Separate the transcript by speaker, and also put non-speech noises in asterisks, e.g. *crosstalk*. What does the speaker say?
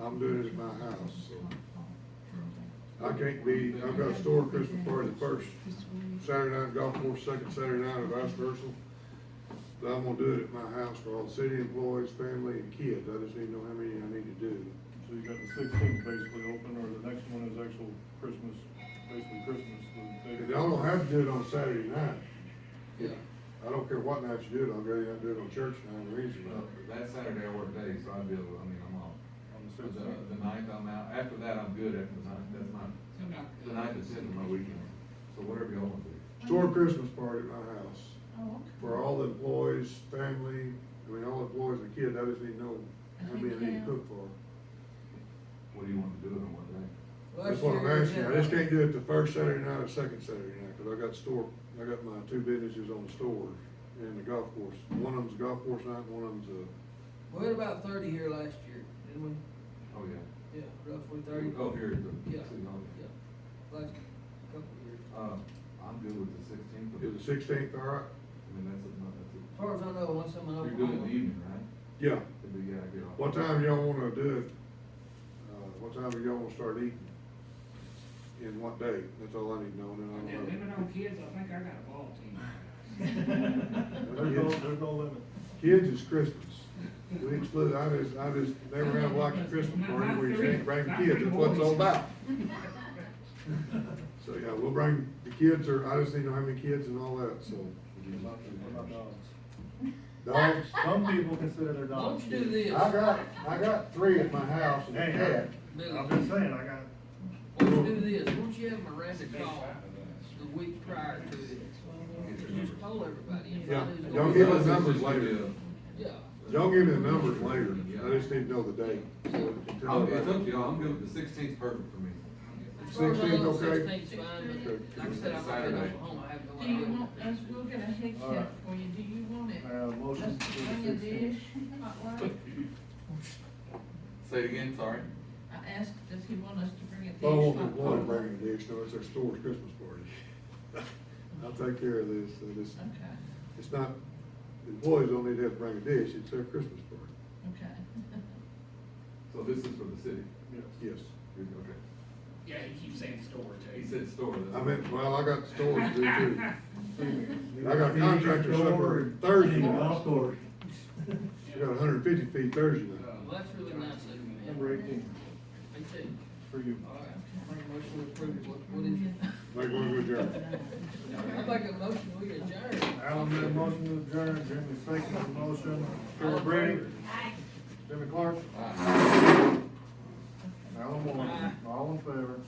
Speaker 1: I'm doing it at my house, so. I can't be, I've got a store Christmas party the first Saturday night, golf course, second Saturday night, or vice versa. But I'm gonna do it at my house for all the city employees, family, and kids, I just need to know how many I need to do.
Speaker 2: So you got the sixteenth basically open, or the next one is actual Christmas, basically Christmas. the day-
Speaker 1: And y'all don't have to do it on Saturday night. Yeah. I don't care what night you do it, I'll go, I do it on church night or Wednesday
Speaker 3: Well,
Speaker 1: night.
Speaker 3: That Saturday I work days, so I'd be able, I mean, I'm off.
Speaker 2: On the
Speaker 3: So The,
Speaker 2: sixteenth.
Speaker 3: the ninth I'm out, after that I'm good, after the ninth, that's not, the ninth is in my weekend, so whatever y'all want to do.
Speaker 1: Store Christmas party at my house,
Speaker 4: Oh,
Speaker 1: for all the employees, family, I mean, all the employees and kids, I just need to know how many I need to cook for.
Speaker 3: What do you want to do it on what day?
Speaker 1: That's what I'm asking, I just can't do it the first Saturday night or second Saturday night, cause I got store, I got my two businesses on the store and the golf course. One of them's a golf course night, and one of them's a,
Speaker 5: We had about thirty here last year, didn't we?
Speaker 3: Oh, yeah.
Speaker 5: Yeah, roughly thirty.
Speaker 3: Oh, here at the
Speaker 5: Yeah,
Speaker 3: city hall.
Speaker 5: yeah, last couple of years.
Speaker 3: Uh, I'm good with the sixteenth.
Speaker 1: is the sixteenth, all right?
Speaker 3: I mean, that's,
Speaker 5: As
Speaker 3: a-
Speaker 5: far as I know, unless I'm in
Speaker 3: that's,
Speaker 5: Oklahoma.
Speaker 3: it. you're good in the evening, right?
Speaker 1: Yeah.
Speaker 3: It'd be, yeah, I get off.
Speaker 1: What time
Speaker 3: *laughs*
Speaker 1: y'all wanna do it? Uh, what time do y'all wanna start eating? And what day? That's all I need to know, and then I'll. know.
Speaker 6: Living on kids, I think I got a ball
Speaker 1: *laughs*
Speaker 6: team.
Speaker 2: There's no, there's no limit.
Speaker 1: Kids is Christmas. We exclude, I just, I just never have watched a Christmas party where you can't bring kids, that's what it's all
Speaker 4: *laughs*
Speaker 1: about. *laughs* So, yeah, we'll bring the kids, or I just need to know how many kids and all that, so.
Speaker 2: What about- what about dogs?
Speaker 1: Dogs,
Speaker 2: Some people consider their
Speaker 5: Why
Speaker 2: dogs.
Speaker 5: don't you do
Speaker 1: I
Speaker 5: this?
Speaker 1: got, I got three at my house and a
Speaker 2: Hey,
Speaker 1: cat.
Speaker 2: I- I'm just saying, I got.
Speaker 5: Why don't you do this? Why don't you have Miranda call the week prior to it? And Just poll everybody and find
Speaker 1: Yeah,
Speaker 5: who's.
Speaker 1: don't
Speaker 5: gonna
Speaker 1: give
Speaker 5: be-
Speaker 1: us numbers
Speaker 3: It's just gonna be
Speaker 1: later.
Speaker 5: Yeah,
Speaker 1: Y'all give me the numbers later, I just need to know the date. Oh, so we can
Speaker 3: a-
Speaker 1: tell
Speaker 3: I'll- It's up to
Speaker 1: everybody.
Speaker 3: y'all, I'm good with the sixteenth, perfect for me.
Speaker 5: as far as
Speaker 1: *laughs*
Speaker 5: I know,
Speaker 1: 16th, okay?
Speaker 5: sixteen's fine,
Speaker 1: Okay.
Speaker 5: but like I said, I'm not in
Speaker 3: Saturday.
Speaker 5: Oklahoma, I have no
Speaker 4: Do you
Speaker 5: idea.
Speaker 4: want, us, we'll get a head
Speaker 2: All right.
Speaker 4: check for you, do you want it?
Speaker 2: I have a motion
Speaker 4: Us
Speaker 2: for
Speaker 4: to
Speaker 2: the
Speaker 4: bring a
Speaker 2: 16th.
Speaker 4: dish, hot water?
Speaker 3: Say it again, sorry.
Speaker 4: I asked, does he want us to bring a dish?
Speaker 1: I won't
Speaker 4: hot
Speaker 1: want to
Speaker 4: water?
Speaker 1: Oh, bring a dish, no, it's our store's Christmas party. I'll take care of this, uh, this,
Speaker 4: Okay,
Speaker 1: it's not, employees don't need to have to bring a dish, it's their Christmas party.
Speaker 4: okay.
Speaker 3: So this is for the city,
Speaker 2: Yes.
Speaker 1: Yes.
Speaker 3: okay.
Speaker 6: Yeah, he keeps saying store too.
Speaker 3: He said store. that's-
Speaker 1: I meant, well, I got stores to do too.
Speaker 4: *laughs*
Speaker 1: I got contractor
Speaker 2: contractors
Speaker 1: supper Thursday night.
Speaker 2: course.
Speaker 1: I got hundred and fifty feet Thursday night.
Speaker 5: Well, that's really nice of you, man.
Speaker 2: Number eighteen,
Speaker 5: Me too.
Speaker 2: for you.
Speaker 5: All right, make a motion to approve, what, what is it?
Speaker 1: Make one good job.
Speaker 5: *laughs* I make a motion, we adjourn.
Speaker 2: Alan made a motion to adjourn, Jimmy seconded the motion, Philip Brady. Jimmy Clark.
Speaker 3: Aye.
Speaker 2: Alan Moore, all in favor?